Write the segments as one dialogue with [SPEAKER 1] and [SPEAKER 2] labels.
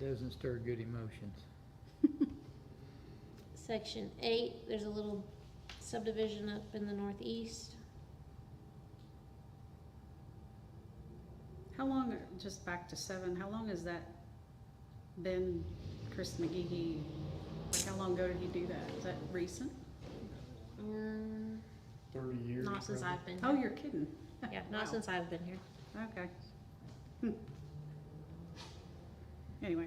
[SPEAKER 1] Doesn't stir good emotions.
[SPEAKER 2] Section eight, there's a little subdivision up in the northeast.
[SPEAKER 3] How long, are- just back to seven, how long has that been Chris McGee? Like, how long ago did he do that? Is that recent?
[SPEAKER 2] Mm,
[SPEAKER 4] thirty years.
[SPEAKER 2] Not since
[SPEAKER 4] probably.
[SPEAKER 2] I've been
[SPEAKER 3] Oh,
[SPEAKER 2] here.
[SPEAKER 3] you're kidding.
[SPEAKER 2] Yeah,
[SPEAKER 3] Wow.
[SPEAKER 2] not since I've been here.
[SPEAKER 3] Okay. Hmm. Anyway,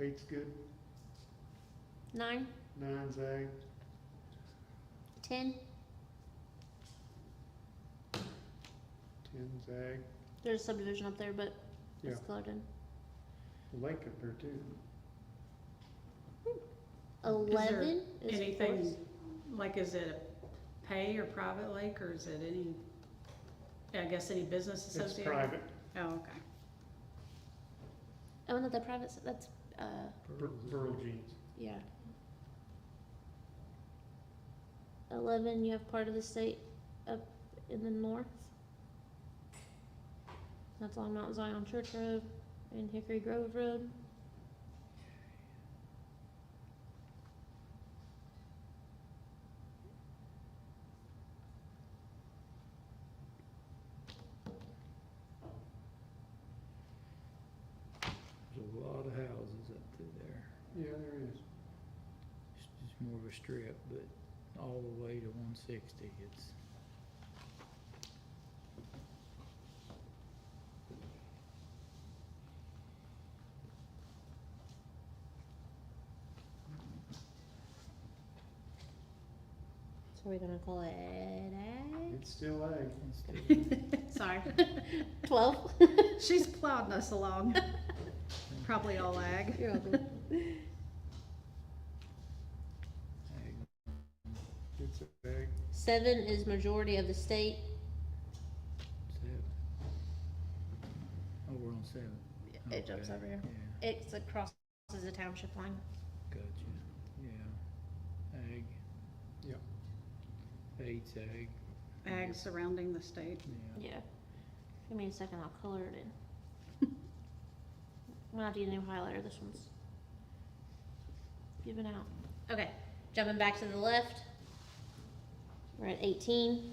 [SPEAKER 4] Eight's good,
[SPEAKER 2] Nine,
[SPEAKER 4] nine's ag,
[SPEAKER 2] ten,
[SPEAKER 4] ten's ag,
[SPEAKER 2] there's a subdivision up there, but it's
[SPEAKER 4] Yeah.
[SPEAKER 2] colored in.
[SPEAKER 4] lake up there too.
[SPEAKER 2] Eleven is
[SPEAKER 3] anything,
[SPEAKER 2] forest.
[SPEAKER 3] like, is it a pay or private lake, or is it any, I guess, any business
[SPEAKER 4] It's
[SPEAKER 3] associated?
[SPEAKER 4] private,
[SPEAKER 3] Oh, okay.
[SPEAKER 2] Oh, no, the private, s- that's, uh,
[SPEAKER 4] Bur- Burl Jeans.
[SPEAKER 2] yeah. Eleven, you have part of the state up in the north. That's along Mount Zion Church Road and Hickory Grove Road.
[SPEAKER 1] There's a lot of houses up through there.
[SPEAKER 4] Yeah, there is.
[SPEAKER 1] It's just more of a strip, but all the way to one sixty, it's.
[SPEAKER 2] So we're gonna call it ag?
[SPEAKER 4] It's still ag.
[SPEAKER 1] it's still-
[SPEAKER 3] Sorry.
[SPEAKER 2] Twelve.
[SPEAKER 3] She's plowing us along. Probably all ag.
[SPEAKER 2] You're welcome.
[SPEAKER 1] ag.
[SPEAKER 4] It's ag.
[SPEAKER 2] Seven is majority of the state.
[SPEAKER 1] Seven. Oh, we're on seven.
[SPEAKER 2] It jumps
[SPEAKER 1] Okay,
[SPEAKER 2] over here.
[SPEAKER 1] Yeah,
[SPEAKER 2] It's across the township line.
[SPEAKER 1] gotcha, yeah. Ag.
[SPEAKER 4] Yep.
[SPEAKER 1] Eight's ag,
[SPEAKER 3] Ag surrounding the state.
[SPEAKER 1] yeah.
[SPEAKER 2] Yeah. Give me a second, I'll color it in. I'm gonna have to get a new highlighter, this one's giving out. Okay, jumping back to the left. We're at eighteen.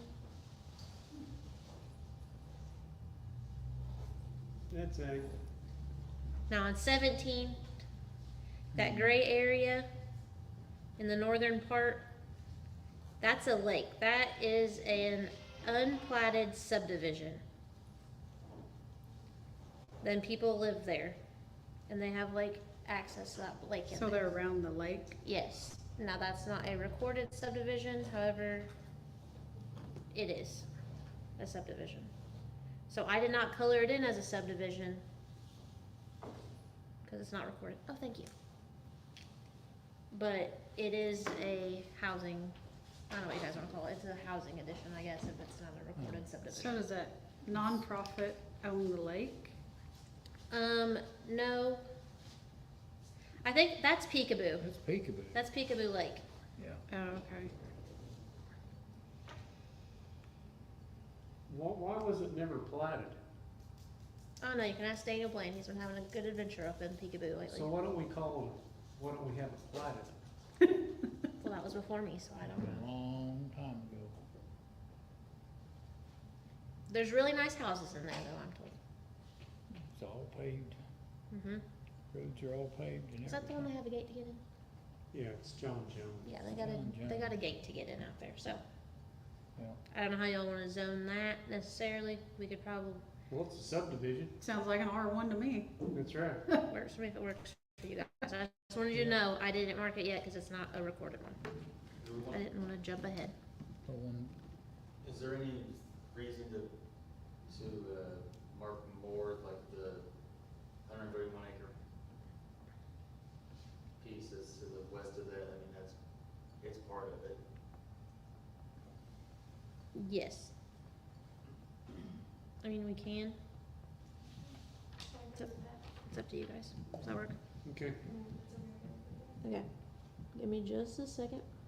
[SPEAKER 4] That's ag.
[SPEAKER 2] Now on seventeen, that gray area in the northern part, that's a lake. That is an unplatted subdivision. Then people live there and they have like access to that lake in
[SPEAKER 3] So
[SPEAKER 2] there.
[SPEAKER 3] they're around the lake.
[SPEAKER 2] Yes. Now that's not a recorded subdivision, however, it is a subdivision. So I did not color it in as a subdivision because it's not recorded. Oh, thank you. But it is a housing, I don't know what you guys want to call it. It's a housing addition, I guess, if it's not a recorded
[SPEAKER 3] So
[SPEAKER 2] subdivision.
[SPEAKER 3] does that nonprofit own the lake?
[SPEAKER 2] Um, no. I think that's Peekaboo.
[SPEAKER 1] That's peekaboo,
[SPEAKER 2] That's Peekaboo Lake.
[SPEAKER 1] yeah.
[SPEAKER 3] Oh, okay.
[SPEAKER 4] Why, why was it never platted?
[SPEAKER 2] Oh no, you can ask Daniel Blaine. He's been having a good adventure up in Peekaboo lately.
[SPEAKER 4] So why don't we call, it- why don't we have it platted?
[SPEAKER 2] well, that was before me, so I don't
[SPEAKER 1] A
[SPEAKER 2] know.
[SPEAKER 1] long time ago.
[SPEAKER 2] There's really nice houses in there, though. I'm told.
[SPEAKER 1] It's all paved,
[SPEAKER 2] hmm
[SPEAKER 1] roads are all paved and everything.
[SPEAKER 2] Is that the one they have a gate to get in?
[SPEAKER 4] Yeah, it's John Jones.
[SPEAKER 2] Yeah, they got
[SPEAKER 1] Yeah,
[SPEAKER 2] a they
[SPEAKER 1] yeah.
[SPEAKER 2] got a gate to get in out there. So
[SPEAKER 1] Yeah.
[SPEAKER 2] I don't know how y'all want to zone that necessarily. We could probably
[SPEAKER 4] Well, it's a subdivision,
[SPEAKER 3] Sounds like an R one to me.
[SPEAKER 4] that's right.
[SPEAKER 2] work for me if it works for you guys. I just wanted you to know I didn't mark it yet because it's not a recorded one. I didn't want to jump ahead.
[SPEAKER 1] The one,
[SPEAKER 5] Is there any reason to, to, uh, mark more like the hundred and thirty-one acre piece that's to the west of that, I mean, that's, it's part of it.
[SPEAKER 2] Yes. I mean, we can. It's up, it's up to you guys. Does that work?
[SPEAKER 4] Okay,
[SPEAKER 2] Okay. Give me just a second.